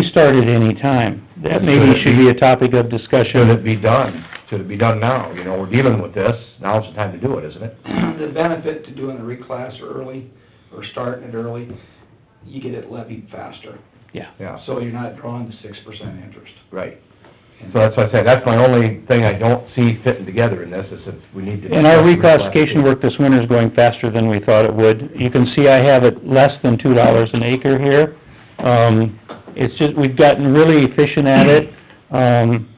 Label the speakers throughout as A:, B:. A: be started any time. That maybe should be a topic of discussion.
B: Should it be done? Should it be done now? You know, we're dealing with this, now's the time to do it, isn't it?
C: the benefit to doing a reclass early, or starting it early, you get it levied faster.
A: Yeah.
B: Yeah,
C: So you're not drawing the six percent interest.
B: right. So that's what I say, that's my only thing I don't see fitting together in this, is that we need to...
A: And our reclassification work this winter is going faster than we thought it would. You can see I have it less than two dollars an acre here. Um, it's just, we've gotten really efficient at it. Um,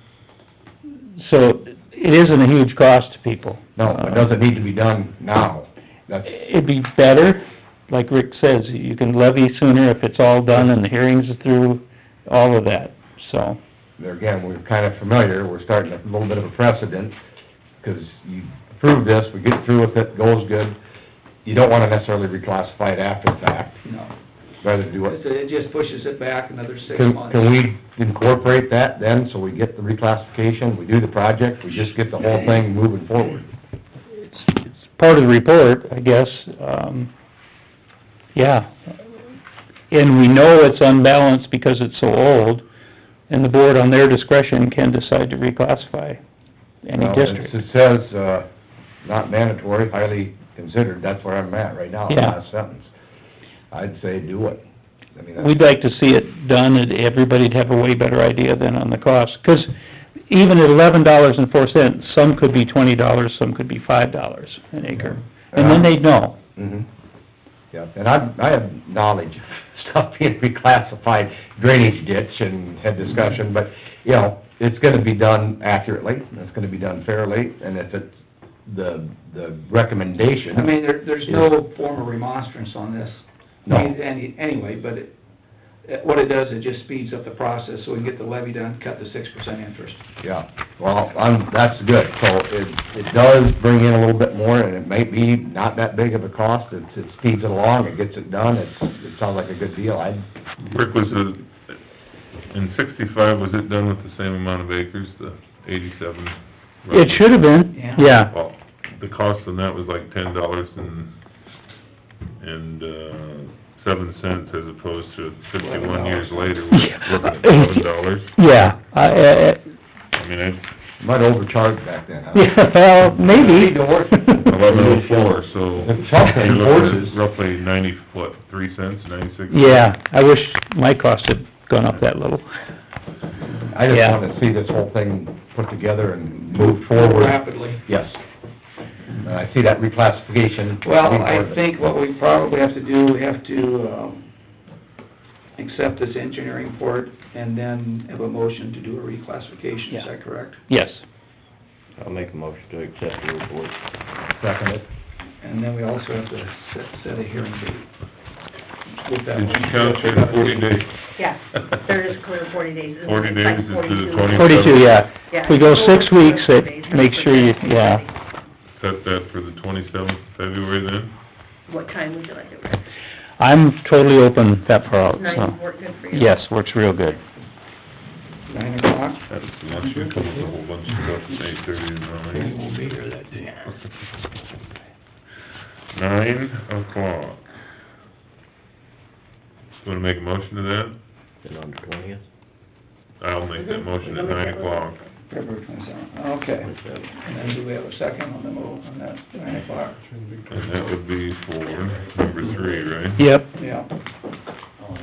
A: so it isn't a huge cost to people.
B: No, it doesn't need to be done now. That's,
A: It'd be better, like Rick says, you can levy sooner if it's all done and the hearings are through, all of that, so.
B: there again, we're kind of familiar, we're starting a little bit of a precedent, because you approve this, we get through with it, goes good. You don't want to necessarily reclassify it after the fact,
C: No,
B: rather than do it
C: It's- it just pushes it back another six
B: Can,
C: months.
B: can we incorporate that then, so we get the reclassification, we do the project, we just get the whole thing moving forward?
A: It's, it's part of the report, I guess, um, yeah. And we know it's unbalanced because it's so old, and the board on their discretion can decide to reclassify any
B: Now,
A: district.
B: It says, uh, not mandatory, highly considered, that's where I'm at right now, the
A: Yeah.
B: last sentence. I'd say do it. I mean, that's-
A: We'd like to see it done, and everybody'd have a way better idea than on the cost, 'cause even at eleven dollars and four cents, some could be twenty dollars, some could be five dollars an acre. And then they'd know,
C: Mm-hmm.
B: Mhm. Yeah, and I, I have knowledge of stuff being reclassified, drainage ditch and had discussion, but, you know, it's gonna be done accurately, and it's gonna be done fairly, and if it's the, the recommendation.
C: I mean, there, there's no form of remonstrance on this.
B: No.
C: I mean, Any, anyway, but it, it- what it does, it just speeds up the process, so we can get the levy done, cut the six percent interest.
B: Yeah, well, I'm, that's good, so it, it does bring in a little bit more, and it may be not that big of a cost, it, it speeds it along, it gets it done, it's, it sounds like a good deal, I,
D: Rick, was it, in sixty-five, was it done with the same amount of acres, the eighty-seven?
A: it should have been,
C: Yeah.
A: yeah,
D: Well, the cost on that was like ten dollars and, and, uh, seven cents as opposed to fifty-one years later, we're looking at eleven dollars.
A: yeah, I, I,
D: I mean, it's
B: might overcharge back then, huh?
A: Yeah, well, maybe.
D: eleven oh four, so
B: Something,
D: you're looking
B: horses.
D: at roughly ninety, what, three cents, ninety-six?
A: Yeah, I wish my cost had gone up that little.
B: I just
A: Yeah.
B: wanna see this whole thing put together and move forward.
C: Rapidly.
B: Yes. And I see that reclassification.
C: Well,
B: being part of
C: I
B: it.
C: think what we probably have to do, we have to, um, accept this engineering report and then have a motion to do a reclassification, is
A: Yeah.
C: that correct?
A: Yes.
E: I'll make a motion to accept the report.
B: Second it.
C: And then we also have to set, set a hearing date. With that
D: Did
C: one.
D: you count your forty days?
F: Yeah, there is clear forty days. It's
D: Forty days
F: like
D: is to the
F: 42.
D: 20
A: Forty-two, yeah.
F: Yeah.
A: We go six weeks, it
F: Forty days.
A: makes sure you, yeah.
D: Set that for the twenty-seventh of February then?
F: What time would you like it, Rick?
A: I'm totally open that far out,
F: Nine would
A: so.
F: work good for you?
A: Yes, works real good.
C: Nine o'clock,
D: That's unless you come up with a whole bunch of stuff at eight thirty in the morning. won't be here that day. Nine o'clock. Wanna make a motion to that?
E: And on the twentieth?
D: I'll make that motion at nine o'clock.
C: February twenty-seventh, okay. And then do we have a second on the move on that, nine o'clock?
D: And that would be for number three, right?
A: Yep,
C: Yeah.
D: Oh,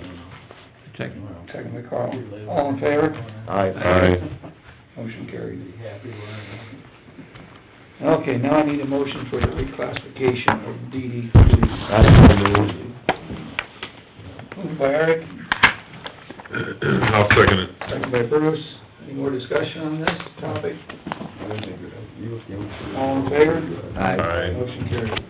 C: Second. Second by Carl. All in favor?
D: Aye.
C: Motion carried. Okay, now I need a motion for the reclassification of DD
B: I move.
C: Moved by Eric,
D: I'll second it.
C: second by Bruce. Any more discussion on this topic? All in favor?
D: Aye.
C: Motion carried.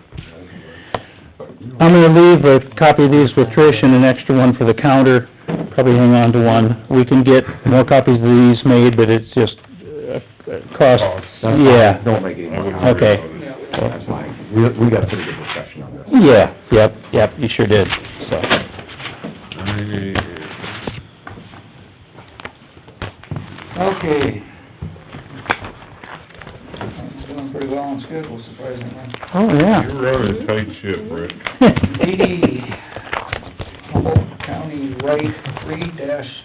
A: I'm gonna leave a copy of these with Trish and an extra one for the counter, probably hang on to one. We can get more copies of these made, but it's just, uh, uh, cost,
B: That's fine.
A: yeah.
B: Don't make any
D: I
B: more
D: wouldn't
B: comments.
D: worry
A: Okay.
D: about it.
B: That's fine. We, we got a pretty good discussion on this.
A: Yeah, yep, yep, you sure did, so.
D: Aye.
C: Okay. It's going pretty well on schedule, surprisingly.
A: Oh, yeah.
D: You're running a tight ship, Rick.
C: DD Humboldt County Right three dash